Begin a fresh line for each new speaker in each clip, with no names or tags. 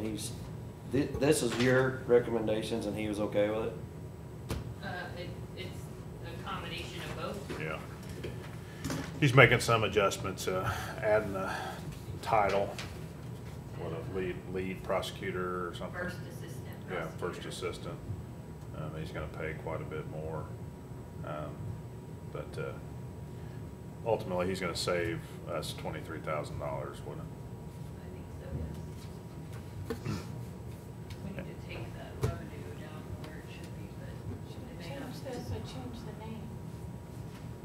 he's, thi- this is your recommendations and he was okay with it?
Uh, it, it's a combination of both.
Yeah. He's making some adjustments, uh, adding the title, what, a lead, lead prosecutor or something?
First assistant
Yeah, first
prosecutor.
assistant. Um, he's gonna pay quite a bit more. Um, but, uh, ultimately, he's gonna save us twenty-three thousand dollars, wouldn't it?
I think so, yes. We need to take that revenue down where it should be, but it may not.
Change this or change the name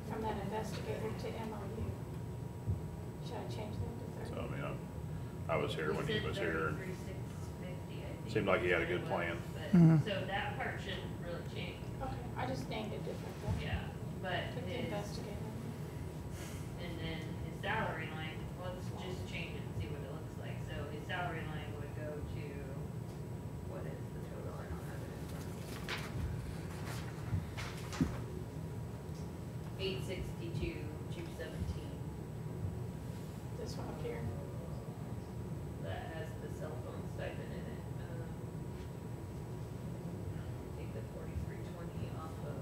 from that investigator to MOU. Should I change that to
So, I
thirty?
mean, I, I was here when he was here.
Thirty-three, six fifty, I think.
Seemed like he had a
is
good
what it was,
Mhm.
But, so that part shouldn't really change,
Okay, I just named it differently.
yeah, but
Put the
his,
investigator.
and then his salary line, let's just change it and see what it looks like. So his salary line would go to, what is the total, I don't have it in front of me. Eight sixty-two, two seventeen,
This one up here.
that has the cell phone stipend in it, um. Take the forty-three twenty off of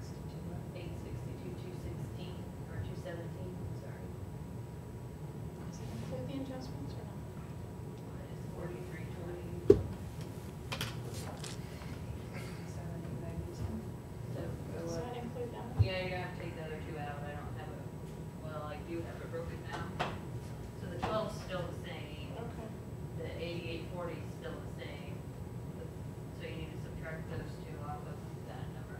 sixty-two, eight sixty-two, two sixteen, or two seventeen, sorry.
Does it include the adjustments or not?
Minus forty-three twenty. So, go
Does
up.
that include that? one?
Yeah, you're gonna have to take the other two out, I don't have it, well, I do have it broken down. So the twelve's still the same,
Okay.
the eighty-eight forty's still the same, but- so you need to subtract those two off of that number.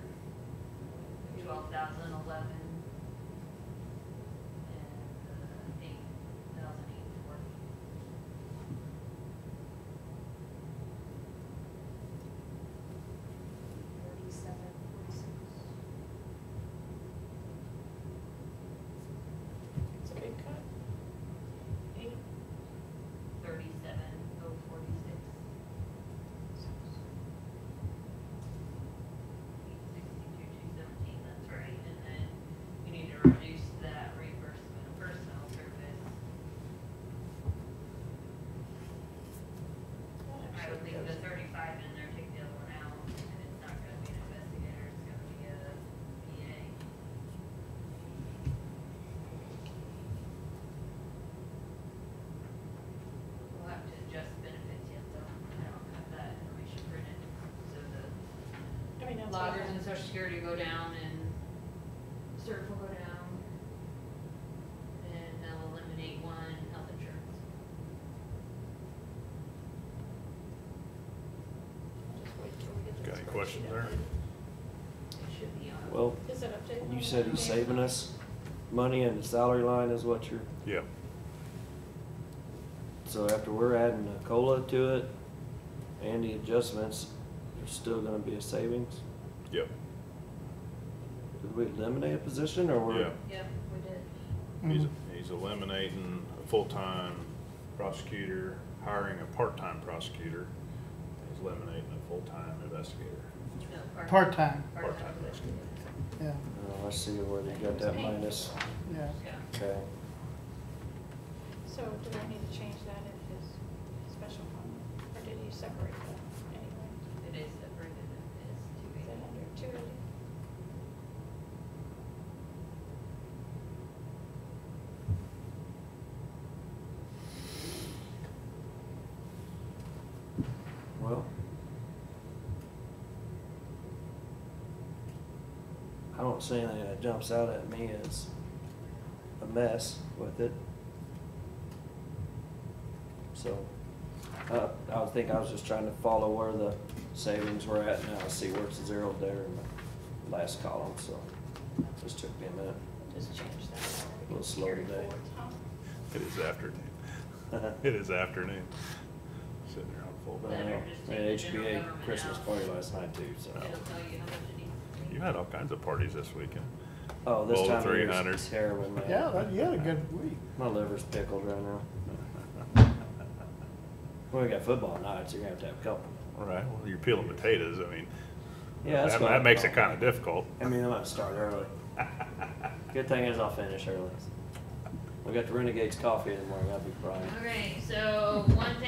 Twelve thousand eleven. And eight thousand eight forty.
Forty-seven, forty-six.
It's a big cut.
Eight. Thirty-seven oh forty-six. Eight sixty-two two seventeen, that's right, and then you need to reduce that reimbursement of personnel service. I would leave the thirty-five in there, take the other one out, and it's not gonna be an investigator, it's gonna be a PA. We'll have to adjust benefits yet, though, I don't have that information printed, so the
I mean, that's. what
loggers
I-
and social security go down and CERF will go down. And they'll eliminate one health insurance.
Just wait till we get the
Got any
spreadsheet
questions there?
updated.
It should be on.
Well,
Is it updated?
you said he's saving us money and the salary line is what you're,
Yeah.
so after we're adding a COLA to it and the adjustments, there's still gonna be a savings?
Yep.
Did we eliminate a position or we're?
Yeah.
Yep, we did.
He's, he's eliminating a full-time prosecutor, hiring a part-time prosecutor. He's eliminating a full-time investigator.
No, part-
Part-time,
Part-time
investigator.
yeah,
Oh, I see where they got that minus,
yeah.
Yeah.
okay.
So do I need to change that in his special fund? Or did he separate that anyway?
It is separated, it is two
Is it
eighty.
under two eighty?
Well. I don't see anything that jumps out at me as a mess with it. So, uh, I would think I was just trying to follow where the savings were at now, see where it's zeroed there in the last column, so. Just took me a minute.
Just change that.
A little slow
Carry
today.
forward, huh?
It is afternoon. It is afternoon. Sitting there on full.
But uh, I know, I had HBA Christmas party last night too, so.
It'll tell you how much it needs to be.
You had all kinds of parties this weekend.
Oh, this
Bowl
time of year
300.
is terrible, man.
Yeah, that- you had a good week.
My liver's pickled right now. Well, we got football night, so you're gonna have to have a couple.
All right, well, you're peeling potatoes, I mean,
Yeah, that's
that,
what
that
I
makes
thought.
it kinda difficult.
I mean, I might start early. Good thing is I'll finish early. We got the Renegades coffee in the morning. I'll be crying.
Okay, so one thing